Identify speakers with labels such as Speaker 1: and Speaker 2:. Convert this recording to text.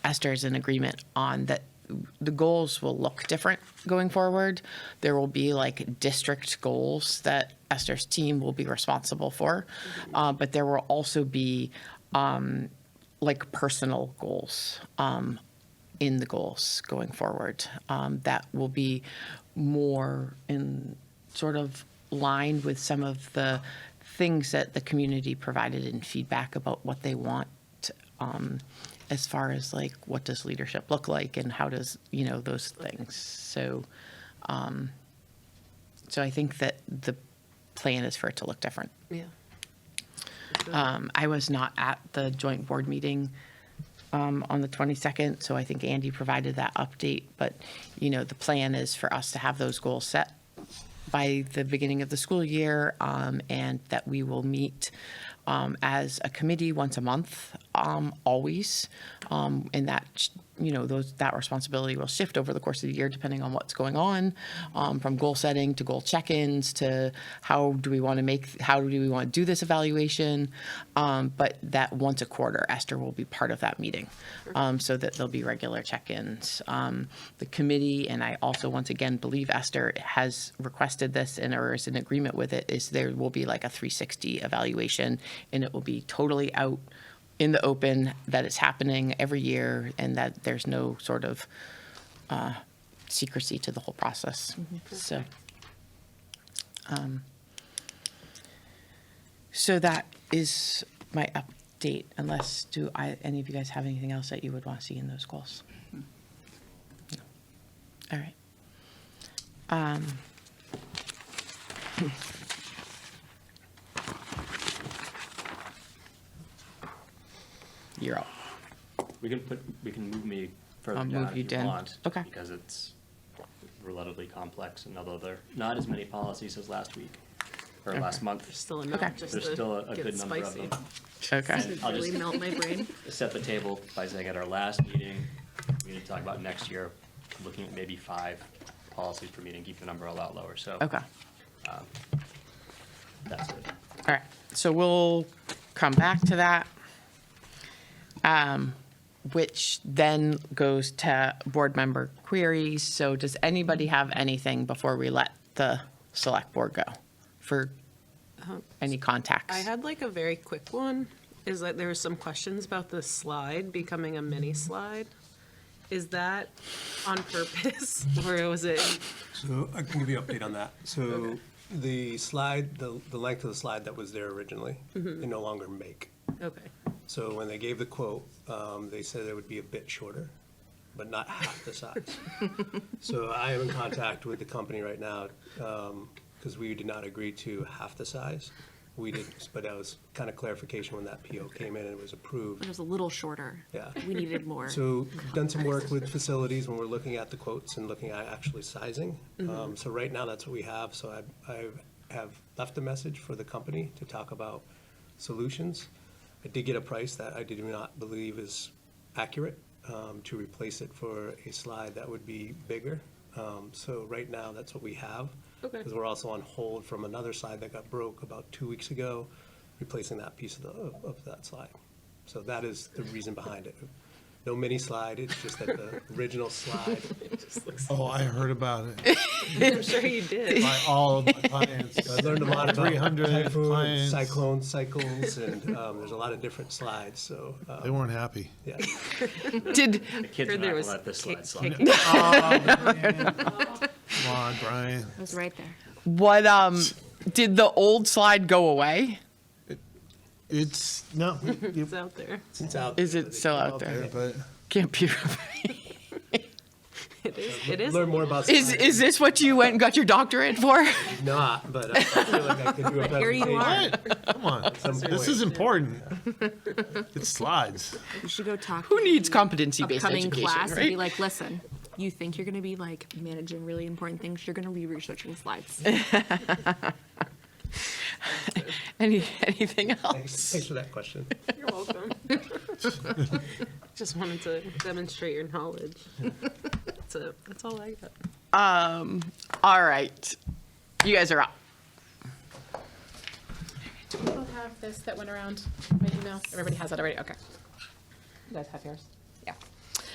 Speaker 1: there's an agreement on that the goals will look different going forward. There will be like district goals that Esther's team will be responsible for, uh, but there will also be um, like personal goals um, in the goals going forward. Um, that will be more in sort of line with some of the things that the community provided in feedback about what they want um, as far as like what does leadership look like and how does you know those things so um, so i think that the plan is for it to look different
Speaker 2: Yeah.
Speaker 1: um, i was not at the joint board meeting um, on the 22nd so i think andy provided that update but you know the plan is for us to have those goals set by the beginning of the school year, um, and that we will meet um, as a committee once a month, um, always. Um, and that, you know, those, that responsibility will shift over the course of the year, depending on what's going on, um, from goal setting to goal check-ins to how do we want to make, how do we want to do this evaluation? Um, but that once a quarter, Esther will be part of that meeting, um, so that there'll be regular check-ins. Um, the committee, and I also once again believe Esther has requested this and or is in agreement with it, is there will be like a 360 evaluation, and it will be totally out in the open that it's happening every year, and that there's no sort of uh, secrecy to the whole process. So. So that is my update, unless do I, any of you guys have anything else that you would want to see in those goals? No. All right. Um, You're up.
Speaker 3: We can put, we can move me further
Speaker 1: I'll
Speaker 3: down
Speaker 1: move you
Speaker 3: if you
Speaker 1: down.
Speaker 3: want.
Speaker 1: Okay.
Speaker 3: Because it's relatively complex and although there, are not as many policies as last week, or last
Speaker 2: There's
Speaker 3: month.
Speaker 2: Still enough,
Speaker 1: Okay.
Speaker 2: just
Speaker 3: There's
Speaker 2: to
Speaker 3: still a- a
Speaker 2: get
Speaker 3: good number of
Speaker 2: spicy.
Speaker 3: them.
Speaker 1: Okay.
Speaker 2: It'd
Speaker 3: I'll
Speaker 2: Really
Speaker 3: just-
Speaker 2: melt my brain.
Speaker 3: Set the table by saying at our last meeting, we need to talk about next year, looking at maybe five policies per meeting, keep the number a lot lower, so.
Speaker 1: Okay.
Speaker 3: That's it.
Speaker 1: All right, so we'll come back to that. um, Which then goes to board member queries. So does anybody have anything before we let the select board go for
Speaker 4: Uh-huh.
Speaker 1: any contacts?
Speaker 2: I had like a very quick one, is that there were some questions about the slide becoming a mini slide. Is that on purpose, or was it,
Speaker 5: So I can give you an update on that. So the slide, the, the length of the slide that was there originally, they no longer make.
Speaker 2: okay,
Speaker 5: So when they gave the quote, um, they said it would be a bit shorter, but not half the size. So I am in contact with the company right now, um, because we did not agree to half the size. We did, but that was kind of clarification when that PO came in and it was approved.
Speaker 4: It was a little shorter.
Speaker 5: Yeah.
Speaker 4: We needed more.
Speaker 5: So done some work with facilities when we're looking at the quotes and looking at actually sizing. Um, So right now, that's what we have. So I, I have left a message for the company to talk about solutions. I did get a price that I did not believe is accurate um, to replace it for a slide that would be bigger. Um, So right now, that's what we have.
Speaker 2: Okay.
Speaker 5: Because we're also on hold from another slide that got broke about two weeks ago, replacing that piece of the, of- of that slide. So that is the reason behind it. No mini slide, it's just that the original slide.
Speaker 6: Oh, I heard about it
Speaker 2: I'm sure you did.
Speaker 6: by all of my clients.
Speaker 5: I learned a lot about
Speaker 6: 300
Speaker 5: typhoon,
Speaker 6: clients.
Speaker 5: cyclone cycles, and um, there's a lot of different slides, so, uh,
Speaker 6: They weren't happy.
Speaker 5: yeah.
Speaker 1: Did,
Speaker 3: The kids
Speaker 2: Or
Speaker 3: are not
Speaker 2: there
Speaker 3: gonna
Speaker 2: was
Speaker 3: let this
Speaker 2: cake-
Speaker 3: slide slide.
Speaker 2: cake-
Speaker 6: Come on, Brian.
Speaker 4: It was right there.
Speaker 1: what, um, did the old slide go away?
Speaker 6: It's, no, you-
Speaker 2: It's out there.
Speaker 5: It's out
Speaker 1: Is
Speaker 5: there,
Speaker 1: it
Speaker 5: but
Speaker 1: still out
Speaker 6: there,
Speaker 1: there?
Speaker 6: but
Speaker 1: Can't be.
Speaker 2: It is, it is.
Speaker 5: Learn more about
Speaker 1: Is,
Speaker 5: slides,
Speaker 1: is this what you went and got your doctorate for?
Speaker 5: not, but uh, I feel like I could do a
Speaker 2: Here you
Speaker 5: presentation
Speaker 2: are.
Speaker 5: at
Speaker 6: what? Come on.
Speaker 5: some
Speaker 6: This is
Speaker 5: point.
Speaker 6: important. It slides.
Speaker 4: You should go talk.
Speaker 1: Who needs competency-based
Speaker 4: upcoming
Speaker 1: education,
Speaker 4: class and be
Speaker 1: right?
Speaker 4: like, listen, you think you're going to be like managing really important things? You're going to be researching slides.
Speaker 1: Any, anything
Speaker 5: Thanks
Speaker 1: else?
Speaker 5: thanks for that question.
Speaker 2: You're welcome. Just wanted to demonstrate your knowledge. That's it, that's all I got.
Speaker 1: All right, you guys are up.
Speaker 7: Do we all have this that went around my email? Everybody has that already, okay. You guys have yours?